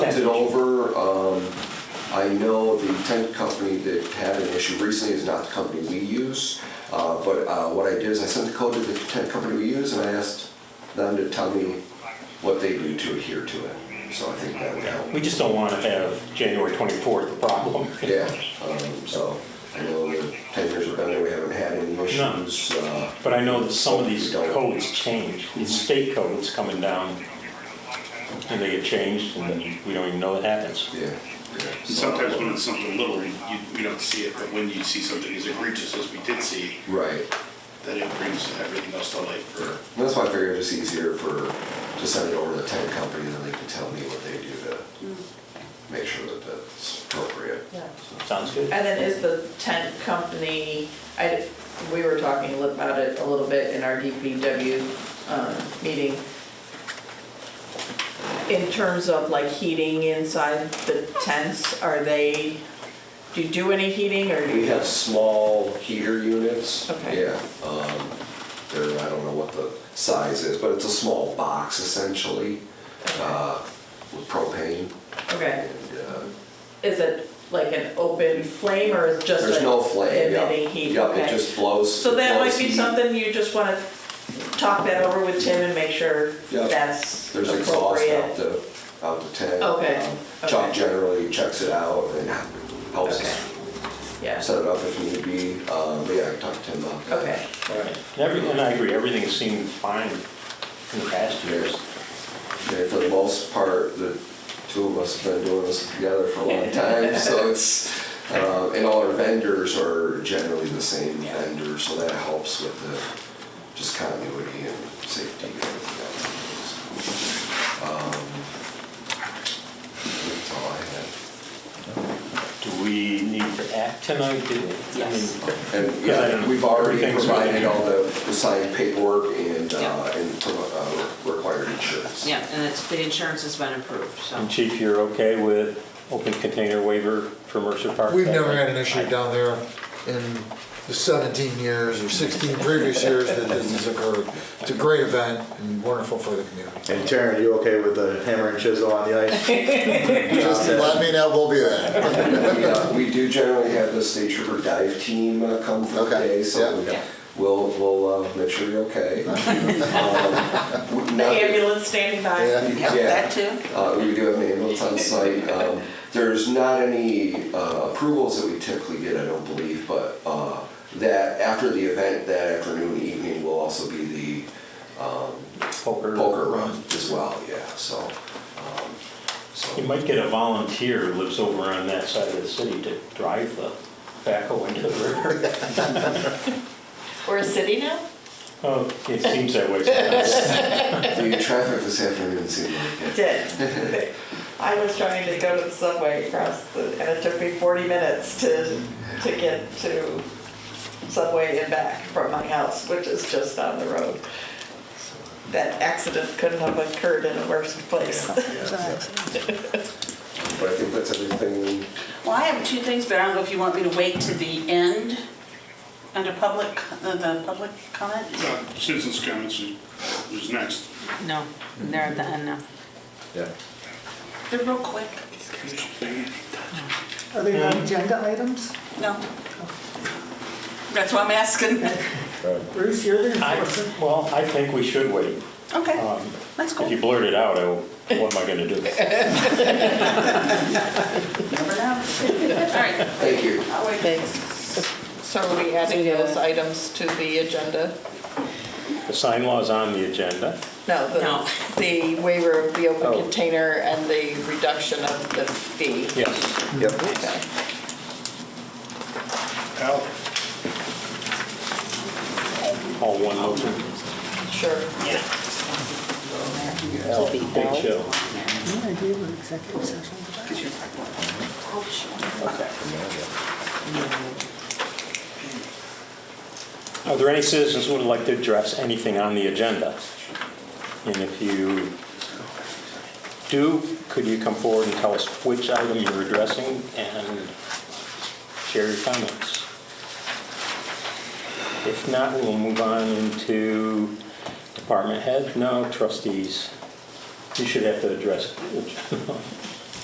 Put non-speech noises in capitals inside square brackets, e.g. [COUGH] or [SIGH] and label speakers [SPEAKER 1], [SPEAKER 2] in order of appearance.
[SPEAKER 1] looked it over. Um, I know the tent company that had an issue recently is not the company we use. Uh, But uh, what I did is I sent the code to the tent company we use and I asked them to tell me what they do to adhere to it. So I think that would help.
[SPEAKER 2] We just don't want to have January 24th a problem.
[SPEAKER 1] Yeah, um, so I know that ten years have been there, we haven't had any issues. Uh,
[SPEAKER 2] But I know that some of these codes change, these state codes coming down, and they get changed, and then we don't even know it happens.
[SPEAKER 1] Yeah, yeah.
[SPEAKER 3] And sometimes when it's something little, you, we don't see it, but when you see something as egregious as we did see,
[SPEAKER 1] Right.
[SPEAKER 3] then it brings everything else to light for,
[SPEAKER 1] And that's why I figured it's easier for, to send it over to the tank company, and then they can tell me what they do to make sure that that's appropriate.
[SPEAKER 4] Mm. Yeah.
[SPEAKER 2] Sounds good?
[SPEAKER 4] And then is the tent company, I, we were talking about it a little bit in our DPW um, meeting. In terms of like heating inside the tents, are they, do you do any heating or do
[SPEAKER 1] We
[SPEAKER 4] you?
[SPEAKER 1] have small heater units.
[SPEAKER 4] Okay.
[SPEAKER 1] Yeah, um, they're, I don't know what the size is, but it's a small box essentially, uh, with propane.
[SPEAKER 4] Okay,
[SPEAKER 1] And, uh,
[SPEAKER 4] is it like an open flame or is it just?
[SPEAKER 1] There's
[SPEAKER 4] a
[SPEAKER 1] no flame, yeah.
[SPEAKER 4] Emitting heat,
[SPEAKER 1] Yep, it
[SPEAKER 4] okay.
[SPEAKER 1] just blows.
[SPEAKER 4] So that
[SPEAKER 1] blows
[SPEAKER 4] might be
[SPEAKER 1] heat.
[SPEAKER 4] something you just wanna talk that over with Tim and make sure
[SPEAKER 1] Yep.
[SPEAKER 4] that's
[SPEAKER 1] There's exhaust out
[SPEAKER 4] appropriate.
[SPEAKER 1] the, out the tank.
[SPEAKER 4] Okay,
[SPEAKER 1] Um, Chuck
[SPEAKER 4] okay.
[SPEAKER 1] generally checks it out and helps us
[SPEAKER 4] Okay. Yeah,
[SPEAKER 1] set it up if need be. Um, But yeah, I talked to him about that.
[SPEAKER 4] okay.
[SPEAKER 2] All right. And every- and I agree, everything has seemed fine in the past years.
[SPEAKER 1] Yeah, For the most part, the two of us have been doing this together for a
[SPEAKER 4] [LAUGHS]
[SPEAKER 1] long time, so it's, um, and all our vendors are generally the same vendor, so that helps with the just continuity and safety and everything else. Um, That's all I had.
[SPEAKER 2] Do we need to act tonight? Do- I mean,
[SPEAKER 4] Yes.
[SPEAKER 1] And yeah, we've already
[SPEAKER 2] Everything's
[SPEAKER 1] provided
[SPEAKER 2] ready.
[SPEAKER 1] all the the signed paperwork and, uh,
[SPEAKER 5] Yeah.
[SPEAKER 1] and uh, required insurance.
[SPEAKER 5] Yeah, and it's, the insurance has been approved, so.
[SPEAKER 2] And Chief, you're okay with open container waiver for Mercer Park?
[SPEAKER 6] We've never had an issue down there in the 17 years or 16 previous years that this has occurred. It's a great event and wonderful for the community.
[SPEAKER 7] And Taryn, you okay with the hammer and chisel on the ice?
[SPEAKER 6] Just let me know, we'll be there.
[SPEAKER 1] We, uh, We do generally have the state trooper dive team uh, come for the
[SPEAKER 6] Okay,
[SPEAKER 1] day, so
[SPEAKER 6] yeah.
[SPEAKER 1] we- we'll, we'll uh, make sure you're
[SPEAKER 6] [LAUGHS]
[SPEAKER 1] okay. Um, we-
[SPEAKER 4] The
[SPEAKER 1] not-
[SPEAKER 4] ambulance standing by.
[SPEAKER 6] Yeah.
[SPEAKER 1] yeah.
[SPEAKER 5] too?
[SPEAKER 1] Uh, we do have an ambulance on site. Um, There's not any uh, approvals that we typically get, I don't believe, but uh, that, after the event, that afternoon, evening will also be the poker run as well, yeah, so. um, so- [LAUGHS]
[SPEAKER 2] You might get a volunteer who lives over on that side of the city to drive the backhoe into the [LAUGHS] river.
[SPEAKER 4] We're a city now?
[SPEAKER 2] Oh, it seems that way sometimes.
[SPEAKER 1] The traffic this afternoon seemed like it.
[SPEAKER 4] Did. I was trying to go to the subway across the, and it took me 40 minutes to, to get to subway and back from my house, which is just down the road. That accident couldn't have occurred in a worse place. [LAUGHS]
[SPEAKER 1] But I think that's everything.
[SPEAKER 5] Well, I have two things, but I don't know if you want me to wait to the end under public, the- the public comment?
[SPEAKER 3] uh, citizens' comments is- is next.
[SPEAKER 5] No, they're at the end now.
[SPEAKER 7] Yeah.
[SPEAKER 5] They're real quick.
[SPEAKER 8] Are there no agenda items?
[SPEAKER 5] No. That's why I'm asking.
[SPEAKER 8] Bruce, you're the
[SPEAKER 2] I-
[SPEAKER 8] enforcer.
[SPEAKER 2] [LAUGHS] Well, I think we should wait.
[SPEAKER 5] Okay,
[SPEAKER 2] Um,
[SPEAKER 5] let's go.
[SPEAKER 2] If you blurt it out, I will- what am I going to do?
[SPEAKER 5] Never know. All right,
[SPEAKER 1] Thank you.
[SPEAKER 5] I'll wait.
[SPEAKER 4] So are we adding those items to the agenda?
[SPEAKER 2] The sign law's on the agenda.
[SPEAKER 4] No,
[SPEAKER 5] No.
[SPEAKER 4] the waiver of the
[SPEAKER 7] Oh.
[SPEAKER 4] open container and the reduction of the fee.
[SPEAKER 2] Yes.
[SPEAKER 7] Yep.
[SPEAKER 3] Al?
[SPEAKER 2] All one motion.
[SPEAKER 4] Sure.
[SPEAKER 2] Big chill.
[SPEAKER 8] No idea what executive session is about.
[SPEAKER 5] Oh,
[SPEAKER 2] Are there any citizens who would like to address anything on the agenda? And if you do, could you come forward and tell us which item you're addressing and share your comments? If not, we'll move on into [LAUGHS] department heads. No, trustees. You should have to address.